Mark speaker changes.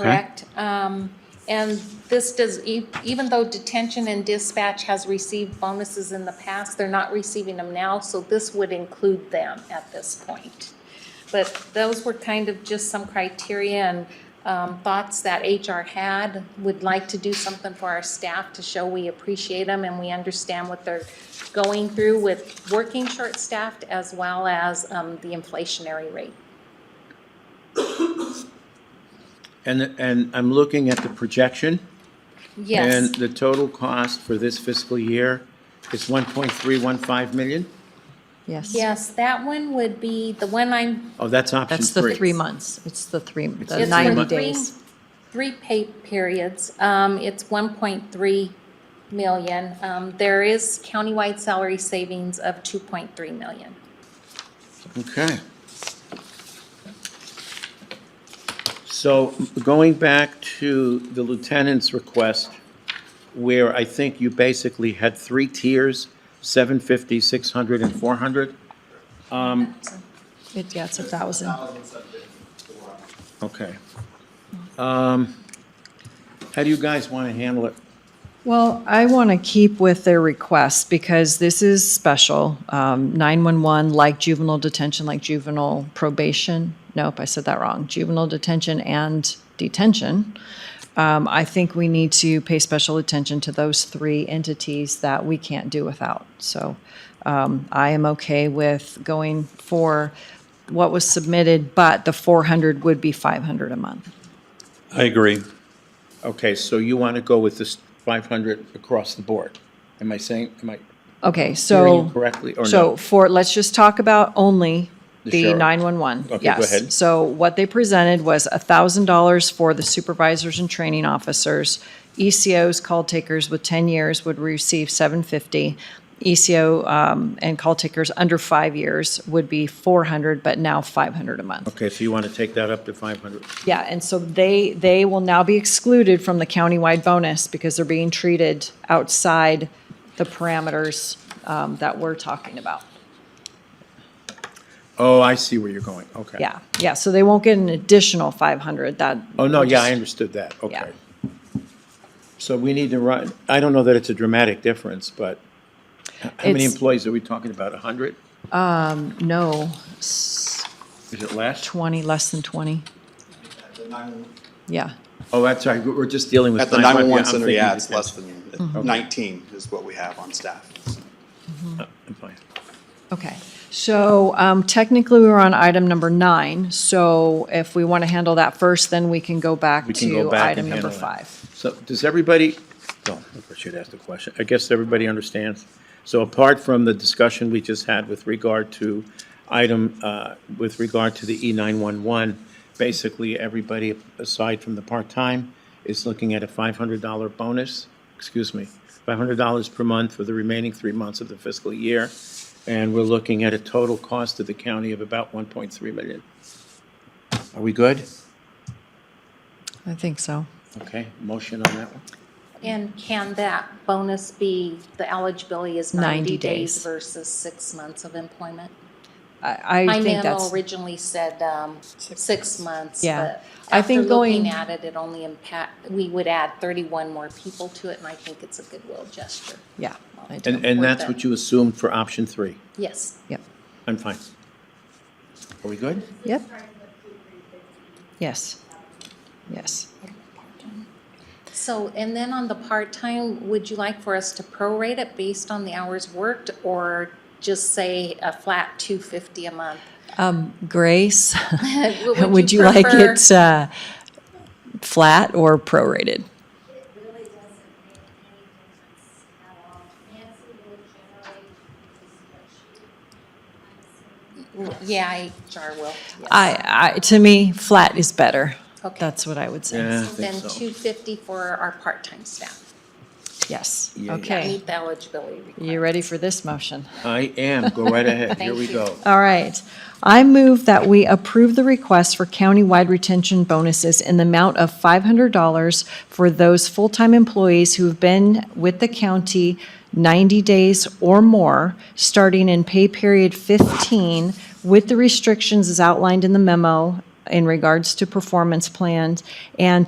Speaker 1: correct? Um, And this does, e- even though detention and dispatch has received bonuses in the past, they're not receiving them now, so this would include them at this point. But those were kind of just some criteria and um, thoughts that HR had. Would like to do something for our staff to show we appreciate them and we understand what they're going through with working short-staffed as well as um, the inflationary rate.
Speaker 2: And, and I'm looking at the projection.
Speaker 1: Yes,
Speaker 2: And the total cost for this fiscal year is 1.315 million?
Speaker 3: Yes.
Speaker 1: yes, that one would be, the one I'm,
Speaker 2: Oh, that's option
Speaker 3: That's
Speaker 2: three.
Speaker 3: the three months. It's the three, the
Speaker 2: It's
Speaker 3: ninety
Speaker 1: for three-
Speaker 3: days.
Speaker 1: Three pay periods, um, it's one point three million. Um, there is countywide salary savings of two point three million.
Speaker 2: Okay. So going back to the lieutenant's request, where I think you basically had three tiers, 750, 600, and 400?
Speaker 3: It, yeah, it's a thousand.
Speaker 2: Okay. Um, How do you guys want to handle it?
Speaker 3: Well, I want to keep with their request because this is special. Um, 911, like juvenile detention, like juvenile probation. Nope, I said that wrong. Juvenile detention and detention. Um, I think we need to pay special attention to those three entities that we can't do without. So um, I am okay with going for what was submitted, but the 400 would be 500 a month.
Speaker 4: I agree.
Speaker 2: Okay, so you want to go with this 500 across the board? Am I saying, am I hearing
Speaker 3: Okay,
Speaker 2: you
Speaker 3: so.
Speaker 2: correctly or no?
Speaker 3: So for, let's just talk about only the
Speaker 2: sheriff.
Speaker 3: 911.
Speaker 2: Okay, go
Speaker 3: Yes.
Speaker 2: ahead.
Speaker 3: So what they presented was $1,000 for the supervisors and training officers. ECOs, call takers with 10 years would receive 750. ECO um, and call takers under five years would be 400, but now 500 a month.
Speaker 2: Okay, so you want to take that up to 500?
Speaker 3: Yeah, and so they, they will now be excluded from the countywide bonus because they're being treated outside the parameters um, that we're talking about.
Speaker 2: Oh, I see where you're going, okay.
Speaker 3: Yeah, yeah, so they won't get an additional five hundred, that.
Speaker 2: Oh, no, yeah, I understood that,
Speaker 3: Yeah.
Speaker 2: okay. So we need to run, I don't know that it's a dramatic difference, but h- how many
Speaker 3: It's-
Speaker 2: employees are we talking about, 100?
Speaker 3: No, s-
Speaker 2: Is it less?
Speaker 3: twenty, less than twenty, yeah.
Speaker 2: Oh, that's right, we're just dealing with.
Speaker 5: At the
Speaker 2: 911.
Speaker 5: 911
Speaker 2: I'm
Speaker 5: center,
Speaker 2: thinking
Speaker 5: yeah, it's
Speaker 2: detention.
Speaker 5: less than 19 is what we have on staff.
Speaker 2: I'm fine.
Speaker 3: Okay, so um, technically, we were on item number nine, so if we want to handle that first, then we can go back
Speaker 2: We can go
Speaker 3: to
Speaker 2: back
Speaker 3: item
Speaker 2: and
Speaker 3: number
Speaker 2: handle that.
Speaker 3: five.
Speaker 2: So does everybody, oh, I should ask the question. I guess everybody understands. So apart from the discussion we just had with regard to item, uh, with regard to the E E911, basically everybody aside from the part-time is looking at a $500 bonus, excuse me, $500 per month for the remaining three months of the fiscal year. And we're looking at a total cost to the county of about 1.3 million. Are we good?
Speaker 3: I think so.
Speaker 2: Okay, motion on that one?
Speaker 1: And can that bonus be, the eligibility is
Speaker 3: 90
Speaker 1: ninety
Speaker 3: days.
Speaker 1: days versus six months of employment?
Speaker 3: I,
Speaker 1: My
Speaker 3: I think
Speaker 1: memo
Speaker 3: that's,
Speaker 1: originally said, um, six months,
Speaker 3: Yeah.
Speaker 1: but
Speaker 3: I
Speaker 1: after
Speaker 3: think
Speaker 1: looking
Speaker 3: going-
Speaker 1: at it, it only impact, we would add thirty-one more people to it, and I think it's a goodwill gesture.
Speaker 3: yeah. I do.
Speaker 2: And, and
Speaker 1: Worth
Speaker 2: that's
Speaker 1: it.
Speaker 2: what you assumed for option three?
Speaker 1: Yes.
Speaker 3: Yep,
Speaker 2: I'm fine. Are we good?
Speaker 3: yep. Yes, yes.
Speaker 1: So, and then on the part-time, would you like for us to prorate it based on the hours worked or just say a flat two fifty a month?
Speaker 3: Um, Grace?
Speaker 1: Would
Speaker 3: Would you like
Speaker 1: prefer-
Speaker 3: it uh, flat or prorated?
Speaker 6: It really doesn't make any difference at all. Nancy will generate the spreadsheet. I'm assuming
Speaker 1: Yeah, HR will. yes.
Speaker 3: I, I, to me, flat is better.
Speaker 1: Okay.
Speaker 3: That's what I would say.
Speaker 2: Yeah, Ah, I think
Speaker 1: Then
Speaker 2: so.
Speaker 1: two fifty for our part-time staff.
Speaker 3: Yes,
Speaker 2: Yeah, yeah.
Speaker 3: okay.
Speaker 1: Meet the eligibility requirement.
Speaker 3: You ready for this motion?
Speaker 2: I am, go right ahead, here
Speaker 1: Thank
Speaker 2: we
Speaker 1: you.
Speaker 2: go.
Speaker 3: All right. I move that we approve the request for countywide retention bonuses in the amount of $500 for those full-time employees who have been with the county 90 days or more, starting in pay period 15, with the restrictions as outlined in the memo in regards to performance plans, and